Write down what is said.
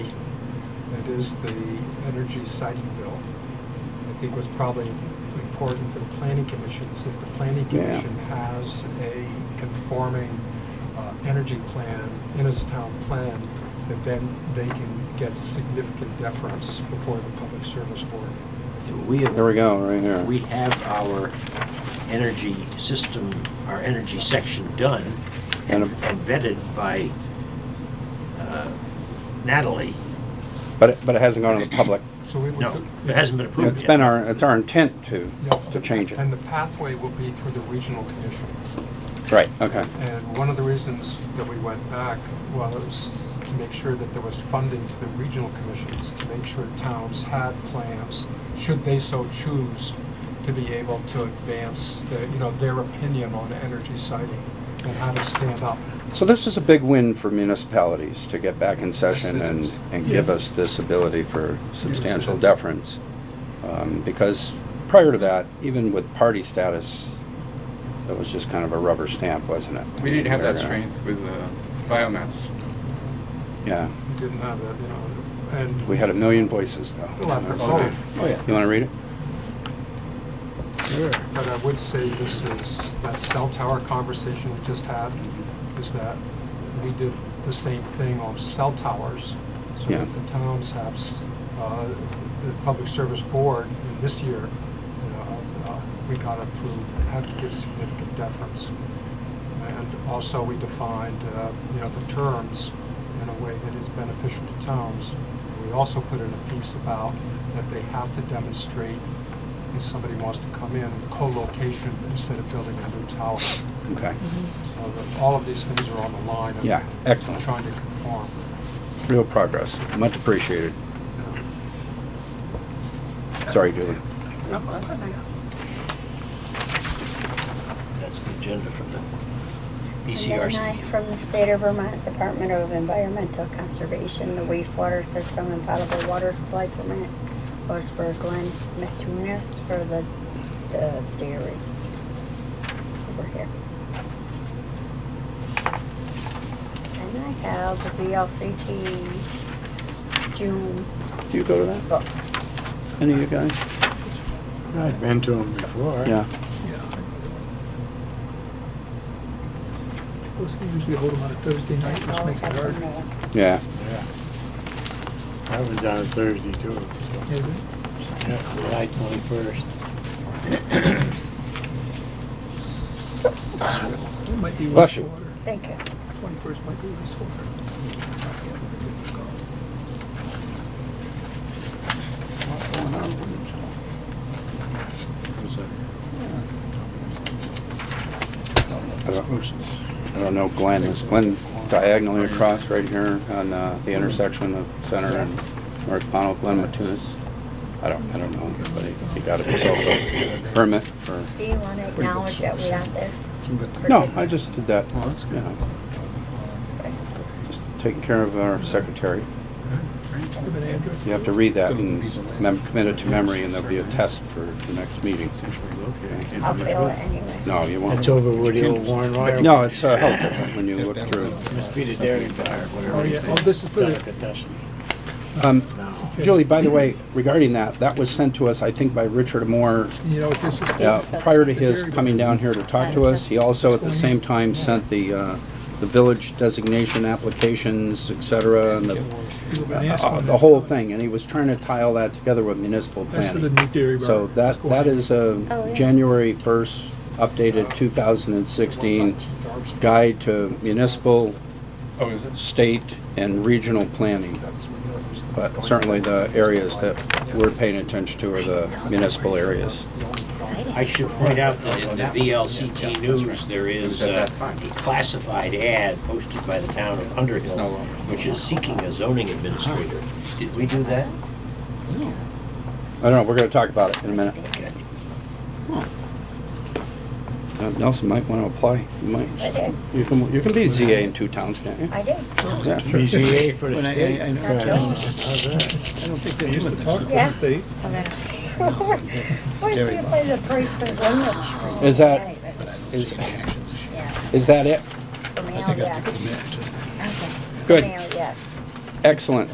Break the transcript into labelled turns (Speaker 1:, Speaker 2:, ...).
Speaker 1: that is the energy siting bill. I think what's probably important for the planning commission is if the planning
Speaker 2: Yeah.
Speaker 1: commission has a conforming uh, energy plan in its town plan, that then they can get significant deference before the public service board.
Speaker 3: We have.
Speaker 2: There we go, right here.
Speaker 3: We have our energy system, our energy section done and
Speaker 2: And-
Speaker 3: and vetted by uh, Natalie.
Speaker 2: But, it- but it hasn't gone to the public.
Speaker 1: So we would.
Speaker 3: No, it hasn't been approved yet.
Speaker 2: It's been our, it's our intent to,
Speaker 1: Yeah.
Speaker 2: to change
Speaker 1: And
Speaker 2: it.
Speaker 1: the pathway will be through the regional commission.
Speaker 2: Right, okay.
Speaker 1: And one of the reasons that we went back was to make sure that there was funding to the regional commissions, to make sure towns had plans, should they so choose, to be able to advance, the- you know, their opinion on energy siting and how to stand up.
Speaker 2: So this is a big win for municipalities to get back in session and,
Speaker 1: Yes, it
Speaker 2: and
Speaker 1: is.
Speaker 2: give
Speaker 1: Yes.
Speaker 2: us this ability for substantial
Speaker 1: is.
Speaker 2: deference. Um, Because prior to that, even with party status, that was just kind of a rubber stamp, wasn't it?
Speaker 4: We didn't have that
Speaker 2: They're gonna-
Speaker 4: strength with uh, biomass.
Speaker 2: Yeah,
Speaker 1: We didn't have that, you know, and. Oh,
Speaker 2: we had a million voices though. Uh, Oh,
Speaker 1: Well, after
Speaker 2: You
Speaker 1: vote.
Speaker 2: wanna read it?
Speaker 1: But I would say this is, that cell tower conversation we just had,
Speaker 4: Mm-hmm.
Speaker 1: is that we did the same thing on cell towers. So
Speaker 2: Yeah.
Speaker 1: that the towns have, s- uh, the Public Service Board, and this year, you know, uh, we got it through, had to give significant deference. And also, we defined, uh, you know, the terms in a way that is beneficial to towns. We also put in a piece about that they have to demonstrate if somebody wants to come in, co-location instead of building a new tower. So
Speaker 2: Okay,
Speaker 1: that all of these things are on the line. of
Speaker 2: Yeah, excellent.
Speaker 1: Trying to conform.
Speaker 2: real progress, much appreciated.
Speaker 1: you know.
Speaker 2: Sorry, Julie.
Speaker 3: That's the agenda for the
Speaker 5: And then I,
Speaker 3: BCRC.
Speaker 5: from the state of Vermont Department of Environmental Conservation, the wastewater system and potable water supply permit was for Glenn Metunis for the, the dairy over here. And I have the VLCT June
Speaker 2: Do you go to that?
Speaker 5: book.
Speaker 2: Any of you guys?
Speaker 6: I've been to them before.
Speaker 2: Yeah.
Speaker 7: Those we usually hold them on a Thursday night,
Speaker 5: That's
Speaker 7: which
Speaker 5: all I
Speaker 7: makes it
Speaker 5: have from
Speaker 7: hard.
Speaker 5: there.
Speaker 2: Yeah.
Speaker 6: Yeah. I was on a Thursday too. so,
Speaker 7: Is it?
Speaker 6: yeah, July twenty-first.
Speaker 7: It might be
Speaker 2: Bless you.
Speaker 7: wastewater.
Speaker 5: Thank you.
Speaker 7: Twenty-first might be wastewater.
Speaker 2: I don't I don't know Glen. Is Glen diagonally across right here on uh, the intersection of Center and North Pono, Glen Matunis? I don't, I don't know, but he- he got himself a permit for,
Speaker 5: Do you want to acknowledge that we got this?
Speaker 2: no, I just did that.
Speaker 4: Oh, that's good.
Speaker 2: Yeah. Just taking care of our secretary.
Speaker 7: Give an address.
Speaker 2: You have to read that and mem- commit it to memory and there'll be a test for the next meeting.
Speaker 5: I'll fill it anyway.
Speaker 2: No, you won't.
Speaker 6: That's over where the old Warren Wire.
Speaker 2: No, it's uh, helpful when you look through.
Speaker 6: Must be the dairy bar, whatever.
Speaker 7: Oh, yeah, oh, this is for the,
Speaker 2: Um,
Speaker 6: No.
Speaker 2: Julie, by the way, regarding that, that was sent to us, I think, by Richard Moore
Speaker 7: you know, this is.
Speaker 2: Yeah, prior to his coming down here to talk to us, he also at the same time sent the, uh, the village designation applications, et cetera, and the,
Speaker 7: You've been asking
Speaker 2: uh, the
Speaker 7: that.
Speaker 2: whole thing, and he was trying to tie all that together with municipal
Speaker 7: That's for
Speaker 2: planning.
Speaker 7: the new dairy bar.
Speaker 2: So
Speaker 7: that's
Speaker 2: that,
Speaker 7: going
Speaker 2: that
Speaker 7: in.
Speaker 2: is a
Speaker 5: Oh, yeah.
Speaker 2: January first updated two thousand and sixteen guide to municipal,
Speaker 4: Oh, is it?
Speaker 2: state, and regional planning. But certainly the areas that we're paying attention to are the municipal areas.
Speaker 3: I should point out that in the VLCT news, there is uh, a classified ad posted by the town of
Speaker 4: no
Speaker 3: Underhill,
Speaker 4: longer.
Speaker 3: which is seeking a zoning administrator. Did we do that?
Speaker 2: I don't know, we're gonna talk about it in a minute.
Speaker 3: Okay.
Speaker 2: Uh, Nelson might want to apply. You
Speaker 5: Yes, I
Speaker 2: might.
Speaker 5: did.
Speaker 2: You can, you can be ZA in two towns, can't you?
Speaker 5: I did.
Speaker 2: Yeah, sure.
Speaker 6: BZA for the
Speaker 4: When I- I-
Speaker 6: state.
Speaker 4: I know.
Speaker 6: Yeah. How's that?
Speaker 7: I don't think they used to talk to
Speaker 5: Yeah.
Speaker 7: the state.
Speaker 5: Okay. Why do you play the price for Glenwood?
Speaker 2: Is that- Is,
Speaker 5: Yeah,
Speaker 2: is that it?
Speaker 5: for male, yes. Okay.
Speaker 2: Good.
Speaker 5: Male, yes.
Speaker 2: Excellent.